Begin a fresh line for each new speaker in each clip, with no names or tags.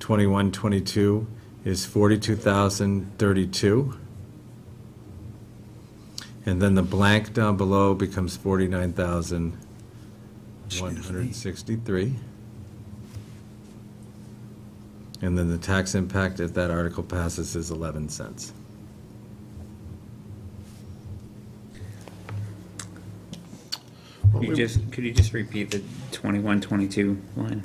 21, 22 is 42,032. And then the blank down below becomes 49,163. And then the tax impact, if that article passes, is 11 cents.
Could you just, could you just repeat the 21, 22 line?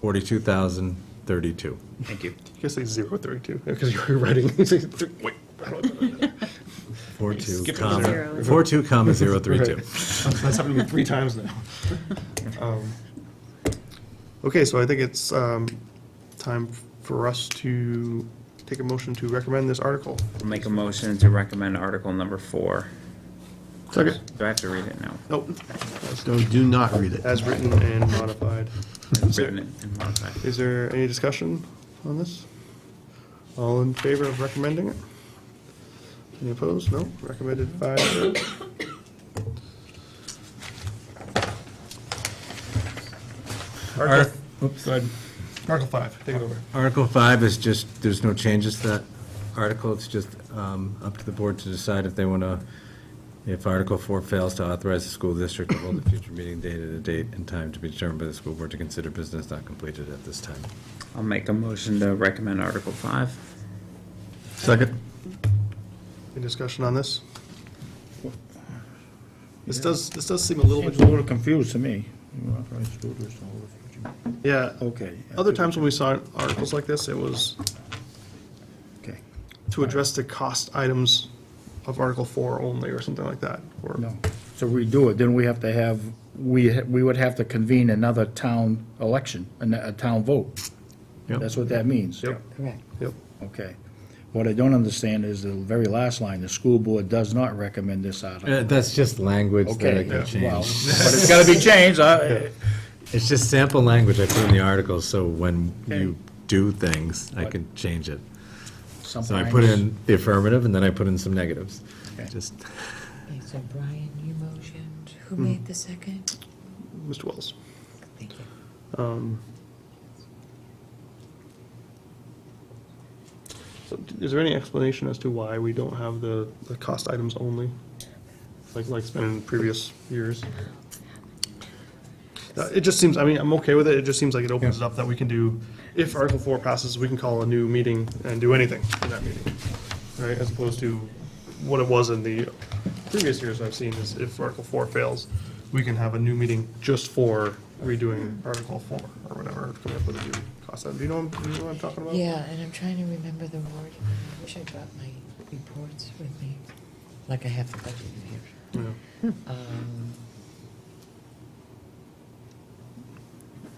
42,032.
Thank you.
You guys say zero thirty-two because you were writing. you say thr- Wait. I don't know.
42,
Skip
comma,
zero.
42, comma, 032.
That's happened to me three times now. Um, Okay, so I think it's um, time for us to take a motion to recommend this article.
I'll Make a motion to recommend article number four.
Second.
Do I have to read it now?
Nope,
No, do not read it.
as written and modified.
I've written it and modified.
Is there any discussion on this? All in favor of recommending it? Any opposed? No? Recommended five. zero. Article,
Oops.
Article five, take it over.
Article 5 is just, there's no changes to that article, it's just um, up to the board to decide if they want to, if Article 4 fails to authorize the school district to hold a future meeting date at a date and time to be determined by the school board to consider business not completed at this time.
I'll make a motion to recommend article five.
Second.
Any discussion on this? This does, this does seem a little
Seems
bit
a little confused to me. You authorize school district to hold a future meeting.
Yeah,
Okay.
other times when we saw articles like this, it was
Okay,
to address the cost items of Article Four only, or something like that, or.
no. So redo it, then we have to have, we, ha- we would have to convene another town election, an- a town vote.
Yep.
That's what that means.
Yep. Yep,
Okay. What I don't understand is the very last line, the school board does not recommend this
Uh,
article.
That's just language that I
Okay,
can
well,
change.
but it's gotta be changed, I,
It's just sample language I put in the article, so when
Okay.
you do things, I can change it.
sometimes.
So I put in the affirmative, and then I put in some negatives.
Okay.
Just,
Okay, so Brian, you motioned. Who
Hmm.
made the second?
Mr. Wells.
Thank you.
Um, so d- Is there any explanation as to why we don't have the, the cost items only? Like, like it's been in previous years? Uh, It just seems, I mean, I'm okay with it, it just seems like it opens it up that we can do, if Article Four passes, we can call a new meeting and do anything in that meeting. Right, as opposed to what it was in the previous years I've seen is if Article Four fails, we can have a new meeting just for redoing Article Four or whatever, coming up with a new cost item. Do you know, do you know what I'm talking about?
Yeah, and I'm trying to remember the word. I wish I brought my reports with me, like I have the budget in here.
Yeah.
Um,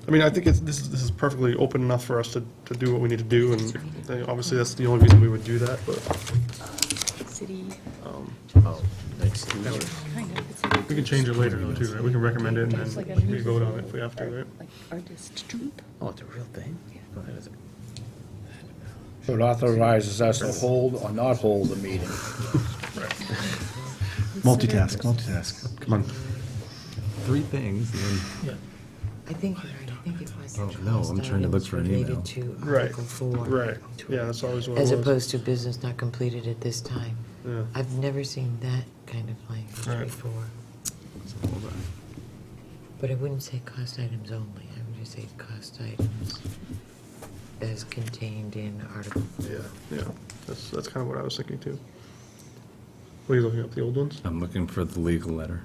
I mean, I think it's, this is, this is perfectly open enough for us to, to do what we need to do, and uh, obviously, that's the only reason we would do that, but
City, kind of, it's
we can change it later, though, too, right? We can recommend it, and then we vote on it if we have to, right?
like artist troupe.
Oh, it's a real thing? That is a-
So it authorizes us to hold or not hold the meeting.
Multitask, multitask. Come on.
three things, and then
I think you're right. I think it was. the
Oh, no, I'm
cost
trying to look
items
for an email.
Related to
Right,
Article Four.
Right, yeah, that's always what it
As
was.
opposed to business not completed at this time.
Yeah.
I've never seen that kind of
Right.
language before. But I wouldn't say cost items only, I would just say cost items as contained in Article.
Yeah, yeah, that's, that's kind of what I was thinking, too. Were you looking up the old ones?
I'm looking for the legal letter.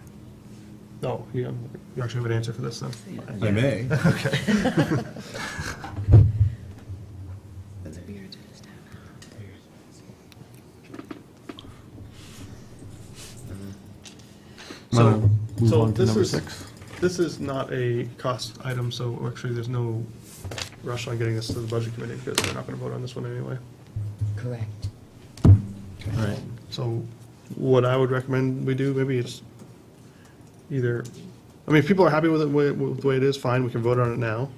No, yeah, you actually have an answer for this, then?
I may.
That's weird. Just have-
So,
Move
so
on to
this
number
is,
six.
this is not a cost item, so actually, there's no rush on getting this to the budget committee, because they're not gonna vote on this one anyway.
Correct.
All right.
So what I would recommend we do, maybe is either, I mean, if people are happy with it, wa- with the way it is, fine, we can vote on it now.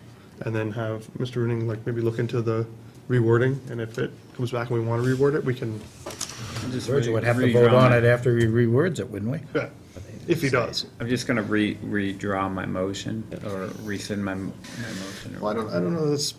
And then have Mr. Rooney, like, maybe look into the rewording, and if it comes back and we want to reword it, we can,
Virgil would have to vote on it after he rewords it, wouldn't we?
yeah, if he does.
I'm just gonna re, redraw my motion or rescind my, my motion. or
Well, I don't, I don't know, that's